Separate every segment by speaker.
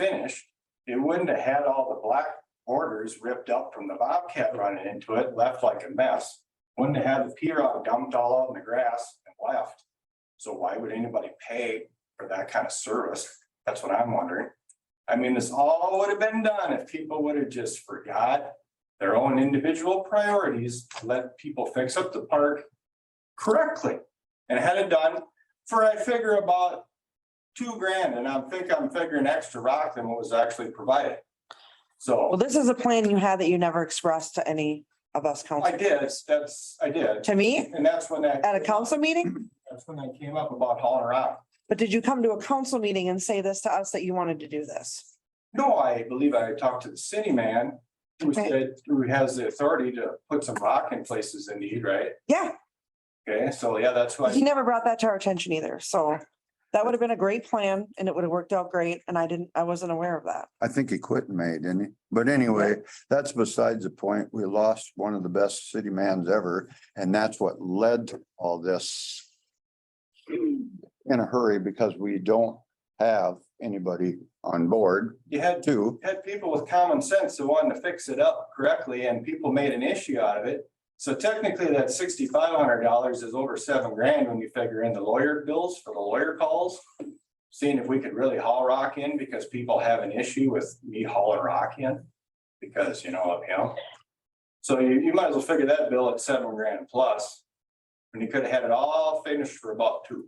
Speaker 1: finished, it wouldn't have had all the black borders ripped up from the Bobcat running into it, left like a mess. Wouldn't have had the P rock dumped all out in the grass and left. So why would anybody pay for that kind of service? That's what I'm wondering. I mean, this all would have been done if people would have just forgot their own individual priorities, to let people fix up the park correctly and had it done for, I figure about two grand, and I'm think I'm figuring extra rock than what was actually provided.
Speaker 2: Well,
Speaker 1: So
Speaker 2: this is a plan you had that you never expressed to any of us
Speaker 1: I
Speaker 2: council.
Speaker 1: did, that's, I did,
Speaker 2: To me,
Speaker 1: and that's when that.
Speaker 2: at a council meeting,
Speaker 1: That's when that came up about hauling rock.
Speaker 2: but did you come to a council meeting and say this to us that you wanted to do this?
Speaker 1: No, I believe I talked to the city man, who
Speaker 2: Okay.
Speaker 1: said, who has the authority to put some rock in places in need, right?
Speaker 2: Yeah,
Speaker 1: Okay, so yeah, that's
Speaker 2: he
Speaker 1: why,
Speaker 2: never brought that to our attention either, so that would have been a great plan and it would have worked out great and I didn't, I wasn't aware of that.
Speaker 3: I think he quit in May, didn't he? But anyway, that's besides the point. We lost one of the best city mans ever, and that's what led to all this. In a hurry because we don't have anybody on board
Speaker 1: you had,
Speaker 3: too.
Speaker 1: had people with common sense who wanted to fix it up correctly, and people made an issue out of it. So technically, that sixty-five hundred dollars is over seven grand when you figure in the lawyer bills for the lawyer calls. Seeing if we could really haul rock in, because people have an issue with me hauling rock in, because, you know, of him. So you, you might as well figure that bill at seven grand plus, and you could have had it all finished for about two.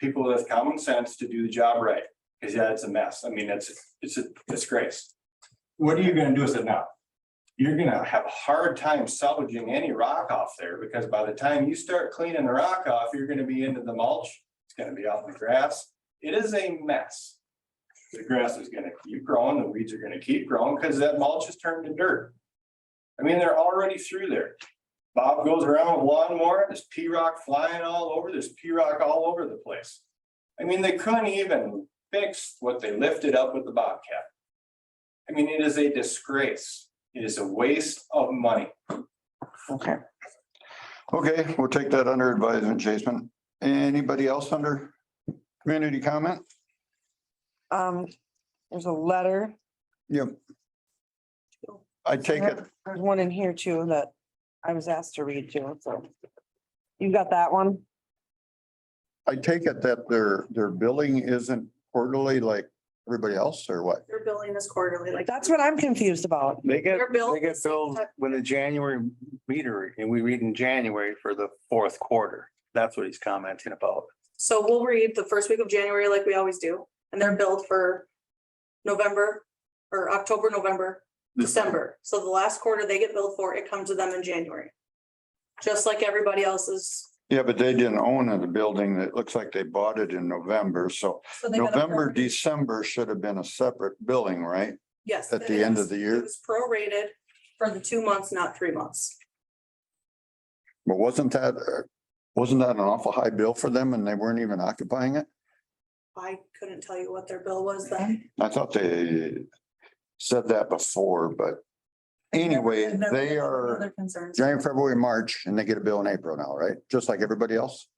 Speaker 1: People with common sense to do the job right. Cause yeah, it's a mess. I mean, it's, it's a disgrace. What are you gonna do with it now? You're gonna have a hard time salvaging any rock off there because by the time you start cleaning the rock off, you're gonna be into the mulch. It's gonna be out in the grass. It is a mess. The grass is gonna keep growing, the weeds are gonna keep growing because that mulch is turned to dirt. I mean, they're already through there. Bob goes around with lawnmower, there's P rock flying all over, there's P rock all over the place. I mean, they couldn't even fix what they lifted up with the Bobcat. I mean, it is a disgrace. It is a waste of money.
Speaker 2: Okay.
Speaker 3: Okay, we'll take that under advisement, Jason. Anybody else under community comment?
Speaker 2: Um, there's a letter,
Speaker 3: Yep. I take it.
Speaker 2: there's one in here too that I was asked to read too, so. You got that one?
Speaker 3: I take it that their, their billing isn't quarterly like everybody else or what?
Speaker 4: Their billing is quarterly, like.
Speaker 2: That's what I'm confused about.
Speaker 5: They get,
Speaker 4: Their bill
Speaker 5: they get
Speaker 4: is-
Speaker 5: billed when the January meter, and we read in January for the fourth quarter. That's what he's commenting about.
Speaker 4: So we'll read the first week of January like we always do, and they're billed for November or October, November,
Speaker 3: Mm-hmm.
Speaker 4: December. So the last quarter they get billed for, it comes to them in January. Just like everybody else's.
Speaker 3: Yeah, but they didn't own the building. It looks like they bought it in November, so
Speaker 4: So they got a-
Speaker 3: November, December should have been a separate billing, right?
Speaker 4: Yes.
Speaker 3: at the end of the year?
Speaker 4: It was prorated for the two months, not three months.
Speaker 3: But wasn't that, uh, wasn't that an awful high bill for them and they weren't even occupying it?
Speaker 4: I couldn't tell you what their bill was then.
Speaker 3: I thought they said that before, but anyway,
Speaker 4: I've never
Speaker 3: they
Speaker 4: had
Speaker 3: are
Speaker 4: Other concerns.
Speaker 3: January, February, March, and they get a bill in April now, right? Just like everybody else?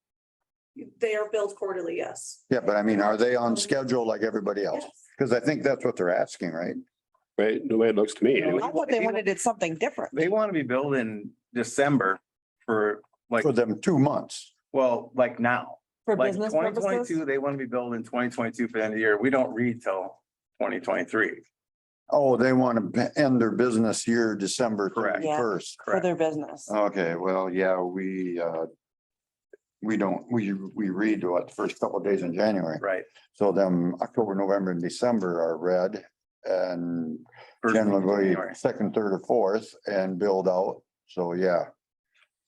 Speaker 4: They are billed quarterly, yes.
Speaker 3: Yeah, but I mean, are they on schedule like everybody else?
Speaker 4: Yes.
Speaker 3: Because I think that's what they're asking, right?
Speaker 6: Right, the way it looks to me,
Speaker 5: Yeah,
Speaker 2: I
Speaker 6: anyway.
Speaker 2: thought they wanted it something different.
Speaker 5: They want to be billed in December for like,
Speaker 3: For them, two months.
Speaker 5: well, like now.
Speaker 2: For
Speaker 5: Like
Speaker 2: business
Speaker 5: twenty
Speaker 2: purposes?
Speaker 5: twenty-two, they want to be billed in twenty twenty-two for the end of the year. We don't read till twenty twenty-three,
Speaker 3: Oh, they want to end their business year December
Speaker 5: Correct.
Speaker 2: Yeah.
Speaker 3: first.
Speaker 2: For
Speaker 5: correct?
Speaker 2: their business.
Speaker 3: Okay, well, yeah, we, uh, we don't, we, we read what, the first couple of days in January.
Speaker 5: Right.
Speaker 3: So them October, November and December are read and
Speaker 5: First week of
Speaker 3: generally
Speaker 5: January.
Speaker 3: second, third or fourth and build out. So, yeah.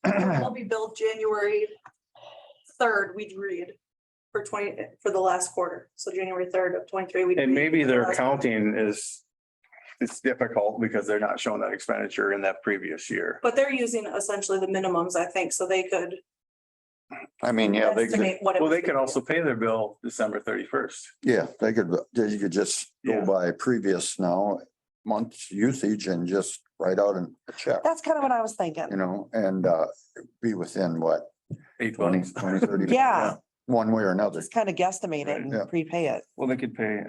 Speaker 4: It'll be billed January third, we'd read for twenty, for the last quarter, so January third of twenty-three. we'd
Speaker 5: And
Speaker 4: read
Speaker 5: maybe
Speaker 4: for the
Speaker 5: their
Speaker 4: last-
Speaker 5: accounting is, it's difficult because they're not showing that expenditure in that previous year.
Speaker 4: But they're using essentially the minimums, I think, so they could
Speaker 3: I mean, yeah, they could,
Speaker 4: estimate what. it
Speaker 5: Well,
Speaker 4: was
Speaker 5: they could
Speaker 4: gonna be.
Speaker 5: also pay their bill December thirty-first.
Speaker 3: yeah, they could, you could just
Speaker 5: Yeah.
Speaker 3: go by previous now month's usage and just write out a check,
Speaker 2: That's kind of what I was thinking.
Speaker 3: you know, and, uh, be within what,
Speaker 5: Eight
Speaker 3: twenty,
Speaker 5: bucks.
Speaker 3: twenty, thirty.
Speaker 2: Yeah.
Speaker 3: One way or another.
Speaker 2: Just kind of guesstimate it
Speaker 5: Right,
Speaker 3: yeah.
Speaker 2: and prepay it.
Speaker 5: Well, they could pay